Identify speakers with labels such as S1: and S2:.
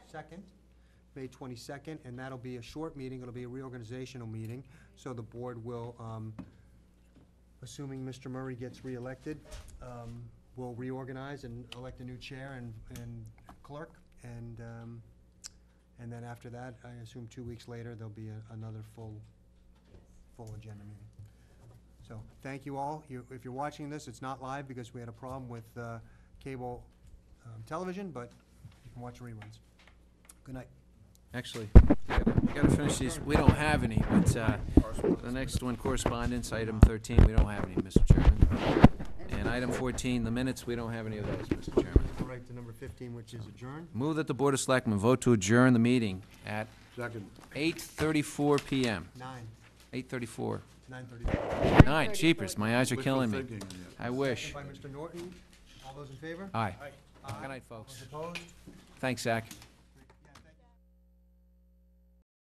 S1: second, May twenty-second, and that'll be a short meeting, it'll be a reorganizational meeting, so the board will, um, assuming Mr. Murray gets reelected, um, will reorganize and elect a new chair and, and clerk, and, um, and then after that, I assume two weeks later, there'll be a- another full, full agenda meeting. So, thank you all. You- If you're watching this, it's not live because we had a problem with uh, cable um, television, but you can watch reruns. Good night.
S2: Actually, we gotta finish these, we don't have any, but, uh, the next one, correspondence, item thirteen, we don't have any, Mr. Chairman. And item fourteen, the minutes, we don't have any of those, Mr. Chairman.
S1: All right, to number 15, which is adjourn.
S2: Move that the Board of Selectmen vote to adjourn the meeting at
S3: Second.
S2: eight thirty-four PM.
S1: Nine,
S2: Eight thirty-four.
S1: 9:30.
S2: Nine, cheapers, my eyes are killing me.
S3: Wishful thinking, yeah.
S2: I wish.
S1: By Mr. Norton. All those in favor?
S2: Aye. Good night, folks.
S1: Those opposed?
S2: Thanks, Zach.